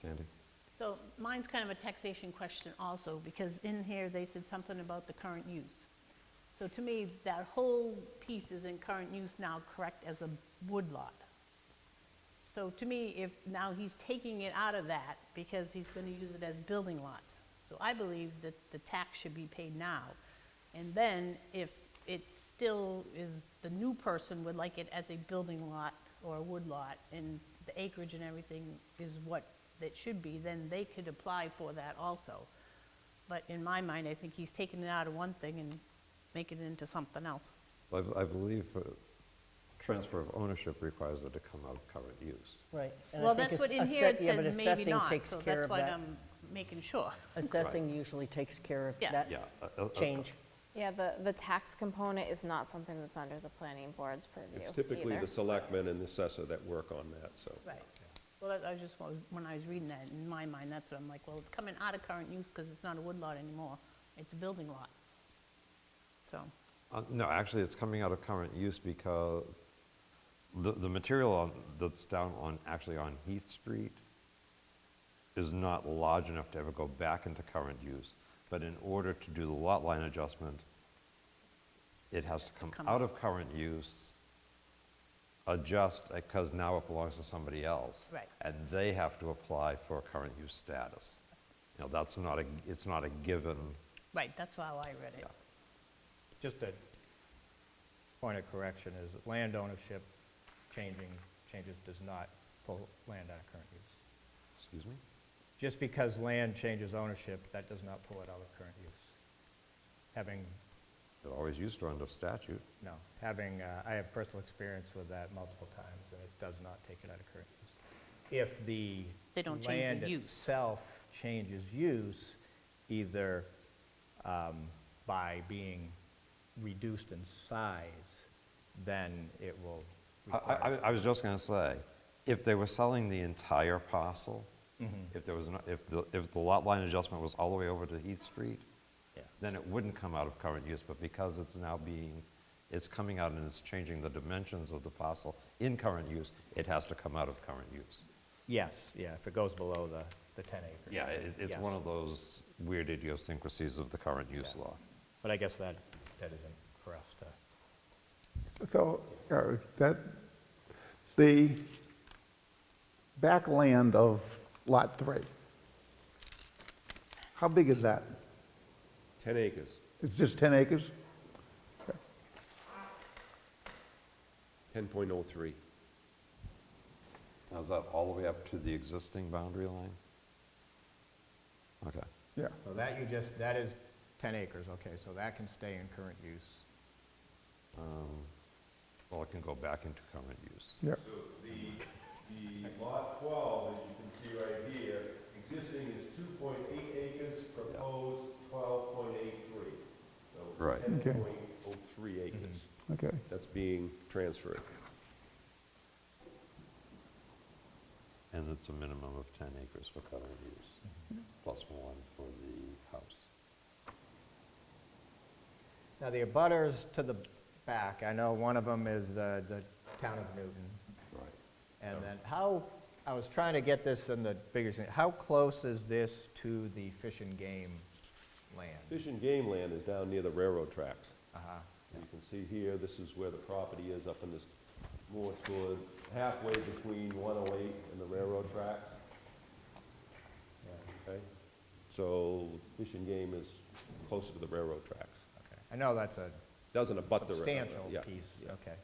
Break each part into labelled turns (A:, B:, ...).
A: Sandy?
B: So mine's kind of a taxation question also, because in here, they said something about the current use. So to me, that whole piece is in current use now, correct, as a woodlot. So to me, if now he's taking it out of that, because he's gonna use it as building lots. So I believe that the tax should be paid now. And then if it still is, the new person would like it as a building lot or a wood lot, and the acreage and everything is what it should be, then they could apply for that also. But in my mind, I think he's taking it out of one thing and making it into something else.
A: Well, I I believe uh, transfer of ownership requires it to come out of current use.
C: Right. and I
B: Well,
C: think
B: that's what
C: it's
B: in here
C: assess-
B: it
C: yeah, but
B: says maybe
C: assessing
B: not,
C: takes
B: so
C: care
B: that's
C: of
B: what
C: that.
B: I'm making sure.
C: Assessing usually takes care of
B: Yeah.
C: that
A: Yeah, uh, uh, uh,
C: change.
D: Yeah, the, the tax component is not something that's under the planning board's purview
E: It's typically
D: either.
E: the selectmen and the assessor that work on that, so.
B: Right. Well, that- I just, was- when I was reading that, in my mind, that's what I'm like, well, it's coming out of current use because it's not a wood lot anymore. It's a building lot. So,
A: Uh, No, actually, it's coming out of current use because the, the material on- that's down on, actually on Heath Street is not large enough to ever go back into current use. But in order to do the lot line adjustment, it has to come
B: Come
A: out of current use, adjust, because now it belongs to somebody else.
B: Right.
A: And they have to apply for current use status. You know, that's not a, it's not a given.
B: right, that's how I read it.
A: Yeah.
F: Just a point of correction is that land ownership changing, changes does not pull land out of current use.
A: Excuse me?
F: Just because land changes ownership, that does not pull it out of current use. Having,
A: It always used to under statute.
F: no, having, uh, I have personal experience with that multiple times, and it does not take it out of current use. If the
B: They don't change the
F: Land
B: use.
F: itself changes use, either um, by being reduced in size, then it will
A: I,
F: require.
A: I, I was just gonna say, if they were selling the entire parcel, if there was, no- if the, if the lot line adjustment was all the way over to Heath Street,
F: Yeah.
A: then it wouldn't come out of current use, but because it's now being, it's coming out and it's changing the dimensions of the parcel in current use, it has to come out of current use.
F: Yes, yeah, if it goes below the, the 10 acres.
A: Yeah, it, it's
F: Yes.
A: one of those weird idiosyncrasies of the current use
F: Yeah.
A: law.
F: But I guess that, that isn't for us to,
G: So uh, that, the backland of Lot 3, how big is that?
E: 10 acres,
G: It's just 10 acres?
E: 10.03.
A: Now, is that all the way up to the existing boundary line? Okay.
G: Yeah.
F: so that you just, that is 10 acres, okay, so that can stay in current use.
A: Um, Well, it can go back into current use.
G: Yeah,
H: The, the lot twelve, as you can see right here, existing is two point eight acres, proposed twelve point eight three.
A: Right.
H: So ten
G: Okay.
H: point oh three
E: Three acres,
G: okay.
E: that's being transferred.
A: And it's a minimum of 10 acres for current use, plus one for the house.
F: Now, the abutters to the back, I know one of them is the, the town of Newton.
A: Right.
F: And then how, I was trying to get this in the bigger, sense. how close is this to the fish and game land?
E: Fish and game land is down near the railroad tracks.
F: Uh-huh.
E: You can see here, this is where the property is, up in this more toward halfway between 108 and the railroad tracks. Okay? So fish and game is closer to the railroad tracks.
F: Okay. I know that's a
E: Doesn't abut the railroad.
F: substantial
E: yeah,
F: piece,
E: yeah.
F: okay.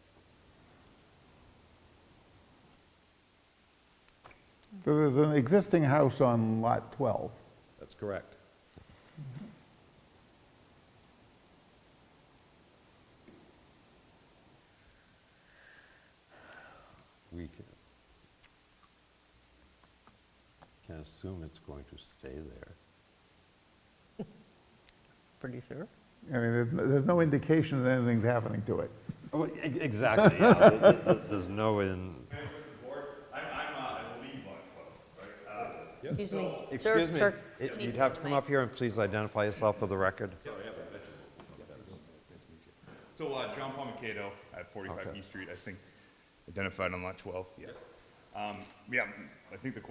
G: So there's an existing house on Lot 12.
E: That's correct.
A: We can, can assume it's going to stay there.
C: Pretty sure.
G: I mean, there's no- there's no indication that anything's happening to it.
A: Oh, exactly, yeah. There's no in,
H: Members of the board, I'm, I'm, uh, I believe on twelve, right? Uh,
C: Excuse me. Sir,
A: excuse me,
C: sir.
A: it- you'd have to come up here and please identify yourself for the record.
H: So, uh, John Paul Mikado at 45
A: Okay.
H: East Street, I think, identified on lot 12, yes. Um, yeah, I think the question